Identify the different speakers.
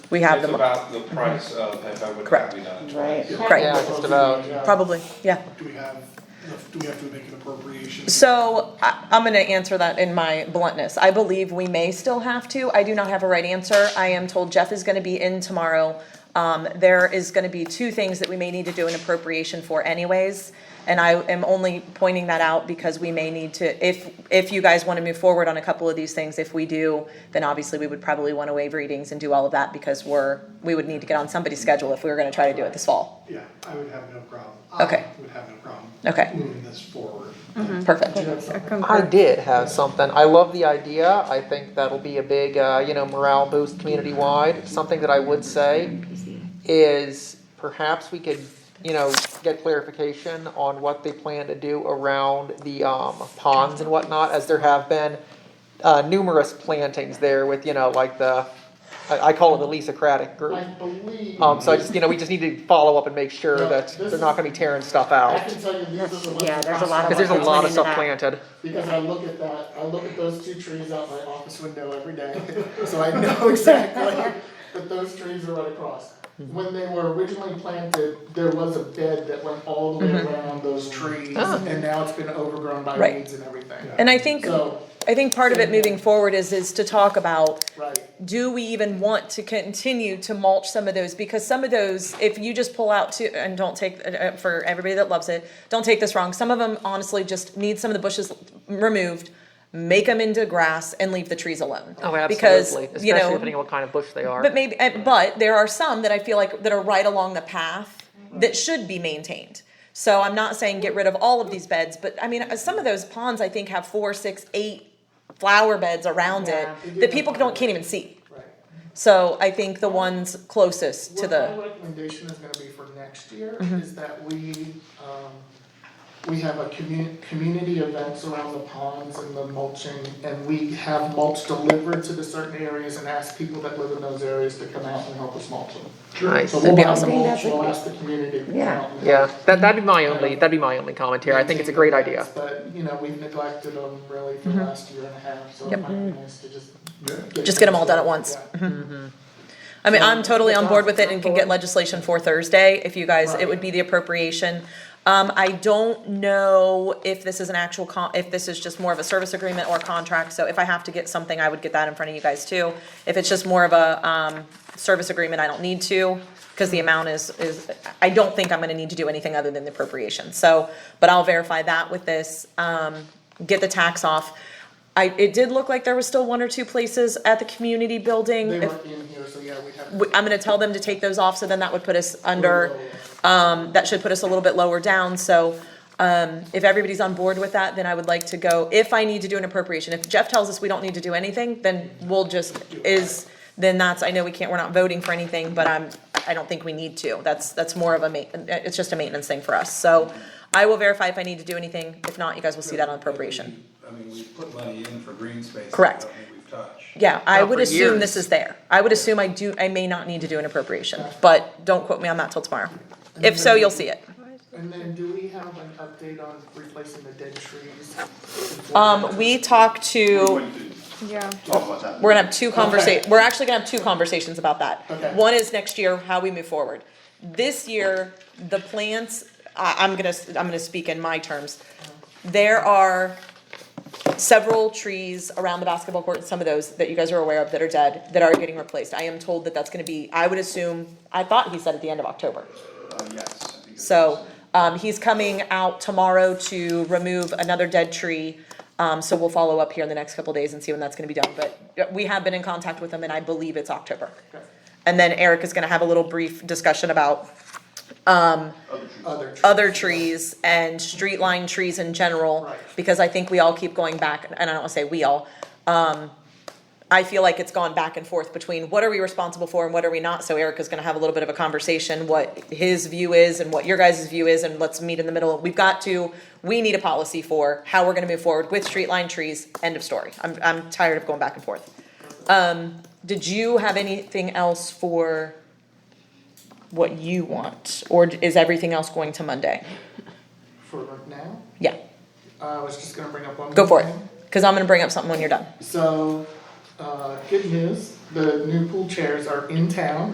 Speaker 1: we have
Speaker 2: It's
Speaker 1: them,
Speaker 2: about the price of if I would
Speaker 1: Correct.
Speaker 2: have we done it
Speaker 3: Right.
Speaker 2: twice.
Speaker 1: Correct.
Speaker 4: Yeah, just about.
Speaker 1: probably, yeah.
Speaker 5: Do we have, enough- do we have to make an appropriation?
Speaker 1: So I, I'm going to answer that in my bluntness. I believe we may still have to. I do not have a right answer. I am told Jeff is going to be in tomorrow. Um, there is going to be two things that we may need to do an appropriation for anyways. And I am only pointing that out because we may need to, if, if you guys want to move forward on a couple of these things, if we do, then obviously we would probably want to waive readings and do all of that because we're, we would need to get on somebody's schedule if we were going to try to do it this fall.
Speaker 5: Yeah, I would have no problem.
Speaker 1: Okay.
Speaker 5: I would have no problem.
Speaker 1: Okay.
Speaker 5: Moving this forward.
Speaker 1: Perfect.
Speaker 4: I did have something. I love the idea. I think that'll be a big, uh, you know, morale boost community wide. Something that I would say is perhaps we could, you know, get clarification on what they plan to do around the um, ponds and whatnot, as there have been uh, numerous plantings there with, you know, like the, I, I call it the Lisa Craddock
Speaker 6: I
Speaker 4: group.
Speaker 6: believe,
Speaker 4: Um, so I just, you know, we just need to follow up and make sure
Speaker 6: No,
Speaker 4: that
Speaker 6: this
Speaker 4: they're not gonna be tearing stuff out.
Speaker 6: I can tell you these are the ones.
Speaker 3: Yeah,
Speaker 6: that
Speaker 3: there's a lot
Speaker 6: cost
Speaker 4: Cause there's a
Speaker 6: money.
Speaker 4: lot of
Speaker 3: Explaining
Speaker 4: stuff
Speaker 3: that.
Speaker 4: planted.
Speaker 6: Because I look at that, I look at those two trees out my office window every day, so I know exactly that those trees are right across.
Speaker 4: Mm-hmm.
Speaker 6: When they were originally planted, there was a bed that went all the way around those trees,
Speaker 4: Mm-hmm. Oh.
Speaker 6: and now it's been overgrown by
Speaker 1: Right.
Speaker 6: weeds and everything.
Speaker 1: And I think,
Speaker 6: So,
Speaker 1: I think part of it moving forward is, is to talk about
Speaker 6: right,
Speaker 1: do we even want to continue to mulch some of those? Because some of those, if you just pull out to, and don't take, uh, for everybody that loves it, don't take this wrong. Some of them honestly just need some of the bushes removed, make them into grass and leave the trees alone.
Speaker 4: Oh, absolutely,
Speaker 1: Because, you
Speaker 4: especially
Speaker 1: know,
Speaker 4: depending on what kind of bush they are.
Speaker 1: but maybe, uh, but there are some that I feel like that are right along the path that should be maintained. So I'm not saying get rid of all of these beds, but I mean, uh, some of those ponds I think have four, six, eight flower beds around it that people don't, can't even see.
Speaker 6: right.
Speaker 1: So I think the ones closest to
Speaker 6: What
Speaker 1: the, Mm-hmm.
Speaker 6: my recommendation is gonna be for next year is that we, um, we have a commu- community events around the ponds and the mulching, and we have mulch delivered to the certain areas and ask people that live in those areas to come out and help us mulch them.
Speaker 4: Nice.
Speaker 6: So we'll
Speaker 4: be
Speaker 6: buy the
Speaker 4: awesome.
Speaker 6: mulch, we'll ask the community to come out and help.
Speaker 4: Yeah, that, that'd be my only, that'd be my only commentary. I think it's a great idea.
Speaker 6: But, you know, we've neglected them really for the last year and a half, so it might be nice to just. get
Speaker 1: Mm-hmm. Just get 'em all done at once.
Speaker 6: Yeah.
Speaker 1: I mean, I'm totally on board with it and can get legislation for Thursday if you guys, it would be the appropriation. Um, I don't know if this is an actual con, if this is just more of a service agreement or contract, so if I have to get something, I would get that in front of you guys too. If it's just more of a, um, service agreement, I don't need to, cause the amount is, is, I don't think I'm gonna need to do anything other than the appropriation, so, but I'll verify that with this, um, get the tax off. I, it did look like there was still one or two places at the community building.
Speaker 6: They
Speaker 1: If-
Speaker 6: weren't in here, so yeah, we'd have.
Speaker 1: we- I'm gonna tell them to take those off, so then that would put us under, um, that should put us a little bit lower down, so, um, if everybody's on board with that, then I would like to go, if I need to do an appropriation, if Jeff tells us we don't need to do anything, then we'll just, is, then that's, I know we can't, we're not voting for anything, but I'm, I don't think we need to, that's, that's more of a ma- it's just a maintenance thing for us, so I will verify if I need to do anything, if not, you guys will see that on appropriation.
Speaker 2: I mean, we put money in for green space. that
Speaker 1: Correct.
Speaker 2: I don't think we've touched.
Speaker 1: Yeah, I
Speaker 4: Not
Speaker 1: would
Speaker 4: for
Speaker 1: assume this
Speaker 4: years.
Speaker 1: is there. I would assume I do, I may not need to do an appropriation, but don't quote me on that till tomorrow. If so, you'll see it.
Speaker 6: And then do we have an update on replacing the dead trees?
Speaker 1: Um, we talked to,
Speaker 3: Yeah.
Speaker 7: Talk about that.
Speaker 1: we're gonna have two conversa,
Speaker 6: Okay.
Speaker 1: we're actually gonna have two conversations about that.
Speaker 6: Okay.
Speaker 1: One is next year, how we move forward. This year, the plants, I, I'm gonna, s- I'm gonna speak in my terms. There are several trees around the basketball court, and some of those that you guys are aware of that are dead, that are getting replaced. I am told that that's gonna be, I would assume, I thought he said at the end of October.
Speaker 7: Uh, yes, I think it
Speaker 1: So, um, he's coming out tomorrow to remove another dead tree. Um, so we'll follow up here in the next couple days and see when that's gonna be done, but yeah, we have been in contact with him and I believe it's October. And then Eric is gonna have a little brief discussion about
Speaker 6: Other trees.
Speaker 1: other trees and street line trees in general.
Speaker 6: Right.
Speaker 1: Because I think we all keep going back, and I don't wanna say we all, um, I feel like it's gone back and forth between what are we responsible for and what are we not, so Erica's gonna have a little bit of a conversation, what his view is and what your guys' view is, and let's meet in the middle. We've got to, we need a policy for how we're gonna move forward with street line trees, end of story. I'm, I'm tired of going back and forth. Um, did you have anything else for what you want, or is everything else going to Monday?
Speaker 6: For now,
Speaker 1: Yeah,
Speaker 6: uh, I was just gonna bring up one.
Speaker 1: go
Speaker 6: more
Speaker 1: for it.
Speaker 6: thing.
Speaker 1: Because I'm going to bring up something when you're done.
Speaker 6: So, uh, good news, the new pool chairs are in town.